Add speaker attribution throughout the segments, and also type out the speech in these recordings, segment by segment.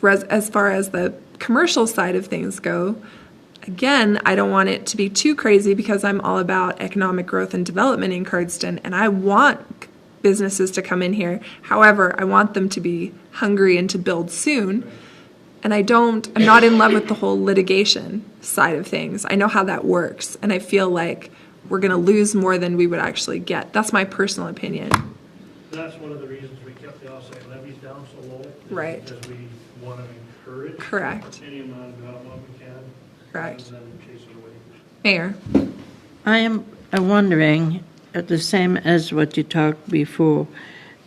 Speaker 1: Res- as far as the commercial side of things go, again, I don't want it to be too crazy because I'm all about economic growth and development in Cardston, and I want c- businesses to come in here. However, I want them to be hungry and to build soon. And I don't, I'm not in love with the whole litigation side of things. I know how that works, and I feel like we're going to lose more than we would actually get. That's my personal opinion.
Speaker 2: That's one of the reasons we kept the offsite levies down so low. is
Speaker 1: Right.
Speaker 2: Because we want to encourage
Speaker 1: Correct.
Speaker 2: any amount of development we can.
Speaker 1: Correct.
Speaker 2: Rather than chase it away.
Speaker 1: Mayor.
Speaker 3: I am uh, wondering, uh, the same as what you talked before,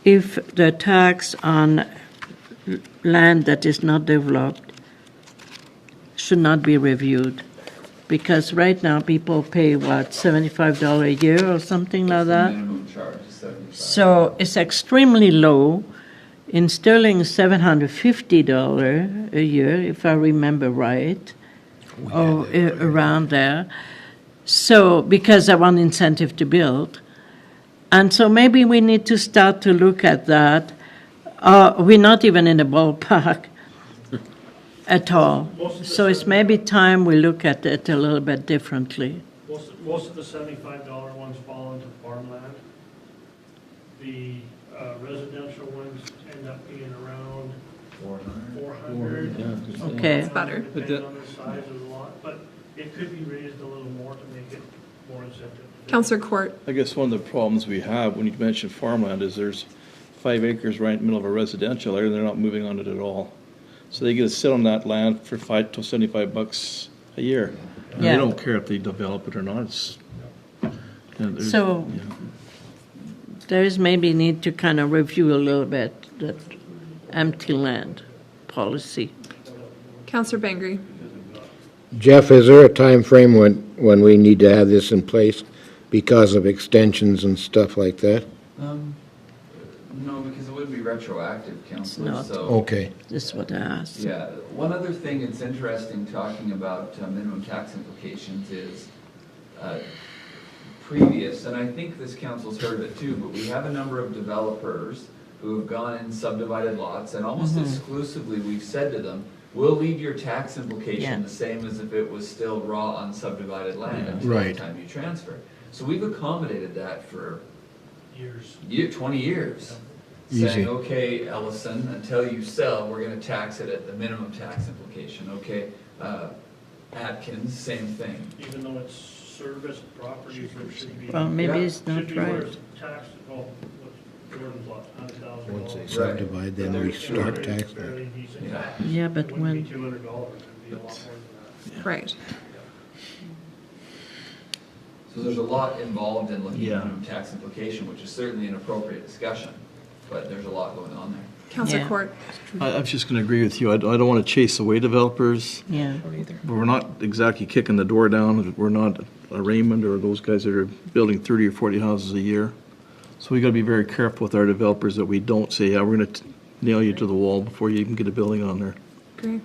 Speaker 3: if the tax on l- land that is not developed should not be reviewed. Because right now, people pay, what, $75 a year or something like that?
Speaker 4: Minimum charge is seventy-five.
Speaker 3: So it's extremely low. In sterling, seven hundred fifty dollar a year, if I remember right,
Speaker 2: Oh,
Speaker 3: or a- around there. So because I want incentive to build, and so maybe we need to start to look at that. Uh, we're not even in the ballpark at all.
Speaker 2: Most of the
Speaker 3: So it's
Speaker 2: stuff-
Speaker 3: maybe time we look at it a little bit differently.
Speaker 2: Most, most of the seventy-five dollar ones fall into farmland. The uh, residential ones end up being around
Speaker 4: Four hundred.
Speaker 2: four hundred.
Speaker 3: Okay.
Speaker 1: It's better.
Speaker 2: Depending on the size of the lot, but it could be raised a little more to make it more incentive.
Speaker 1: Counselor Court.
Speaker 5: I guess one of the problems we have when you mention farmland is there's five acres right in the middle of a residential area, and they're not moving on it at all. So they get to sit on that land for five to seventy-five bucks a year. And
Speaker 3: Yeah.
Speaker 5: they don't care if they develop it or not, it's. and there's-
Speaker 3: So-
Speaker 5: yeah.
Speaker 3: There is maybe need to kind of review a little bit that empty land policy.
Speaker 1: Counselor Bangry.
Speaker 6: Jeff, is there a time frame when, when we need to have this in place because of extensions and stuff like that?
Speaker 4: Um, no, because it would be retroactive, Counselor,
Speaker 3: not.
Speaker 4: so.
Speaker 6: Okay.
Speaker 3: This is what I asked.
Speaker 4: Yeah, one other thing that's interesting talking about uh, minimum tax implications is uh, previous, and I think this council's heard of it too, but we have a number of developers who have gone and subdivided lots, and almost exclusively, we've said to them, we'll leave your tax
Speaker 3: Yeah.
Speaker 4: implication the same as if it was still raw unsubdivided land until the
Speaker 6: Right.
Speaker 4: time you transfer. So we've accommodated that for
Speaker 2: Years.
Speaker 4: year, twenty years.
Speaker 6: Easy.
Speaker 4: Saying, okay, Ellison, until you sell, we're gonna tax it at the minimum tax implication, okay? Uh, Atkins, same thing.
Speaker 2: even though it's service properties that should be.
Speaker 3: Well, maybe
Speaker 4: Yeah,
Speaker 3: it's
Speaker 2: Should
Speaker 3: not
Speaker 2: be where
Speaker 3: right.
Speaker 2: it's taxed, oh, what's Jordan's lot, hundred thousand
Speaker 6: Once they
Speaker 2: dollars.
Speaker 6: subdivide, then we start taxing.
Speaker 2: Fairly decent.
Speaker 4: Yeah.
Speaker 3: Yeah, but
Speaker 2: It wouldn't be
Speaker 3: when,
Speaker 2: two hundred dollars, it'd be a lot more than
Speaker 1: Right.
Speaker 4: So there's a lot involved in looking
Speaker 5: Yeah.
Speaker 4: at minimum tax implication, which is certainly an appropriate discussion, but there's a lot going on there.
Speaker 1: Counselor
Speaker 3: Yeah.
Speaker 1: Court.
Speaker 5: I, I'm just gonna agree with you, I, don't- I don't wanna chase away developers,
Speaker 3: yeah,
Speaker 5: but we're not exactly kicking the door down, we're not a Raymond or those guys that are building thirty or forty houses a year. So we gotta be very careful with our developers that we don't say, yeah, we're gonna t- nail you to the wall before you even get a building on there.
Speaker 1: Agree.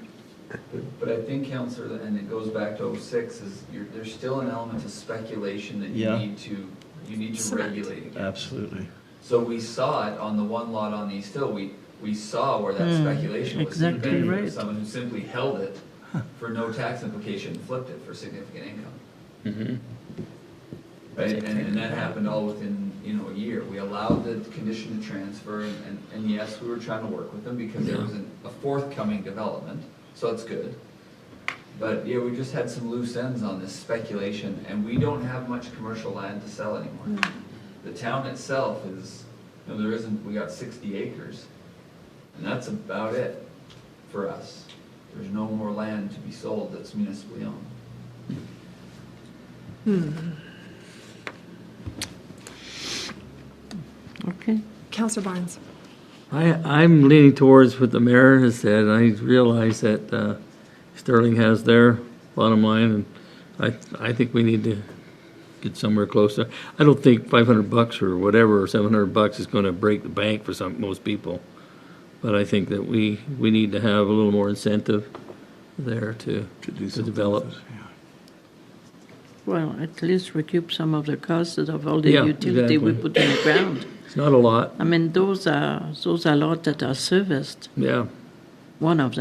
Speaker 4: But I think, Counselor, and it goes back to '06, is you're, there's still an element of speculation that you
Speaker 5: Yeah.
Speaker 4: need to, you need to
Speaker 1: Cement.
Speaker 4: regulate against.
Speaker 5: Absolutely.
Speaker 4: So we saw it on the one lot on East Hill, we, we saw where that
Speaker 3: Hmm,
Speaker 4: speculation was
Speaker 3: exactly
Speaker 4: invented by
Speaker 3: right.
Speaker 4: someone who simply held it for no tax implication, and flipped it for significant income. Right, and, and that happened all within, you know, a year. We allowed the condition to transfer, and, and- and yes, we were trying to work with them because there was an- a forthcoming development, so it's good. But, yeah, we just had some loose ends on this speculation, and we don't have much commercial land to sell
Speaker 3: Hmm.
Speaker 4: anymore. The town itself is, you know, there isn't, we got sixty acres, and that's about it for us. There's no more land to be sold that's municipally owned.
Speaker 3: okay.
Speaker 1: Counselor Barnes.
Speaker 7: I, I'm leaning towards what the mayor has said, and I realize that uh, Sterling has their bottom line, and I, I think we need to get somewhere closer. I don't think five hundred bucks or whatever, or seven hundred bucks is gonna break the bank for some, most people. But I think that we, we need to have a little more incentive there to,
Speaker 5: To do
Speaker 7: to
Speaker 5: something
Speaker 7: develop.
Speaker 5: with it, yeah.
Speaker 3: Well, at least recoup some of the costs of all the
Speaker 7: Yeah,
Speaker 3: utility we
Speaker 7: exactly.
Speaker 3: put in the ground.
Speaker 7: It's not a lot,
Speaker 3: I mean, those are, those are lot that are serviced,
Speaker 7: yeah.
Speaker 3: one of them.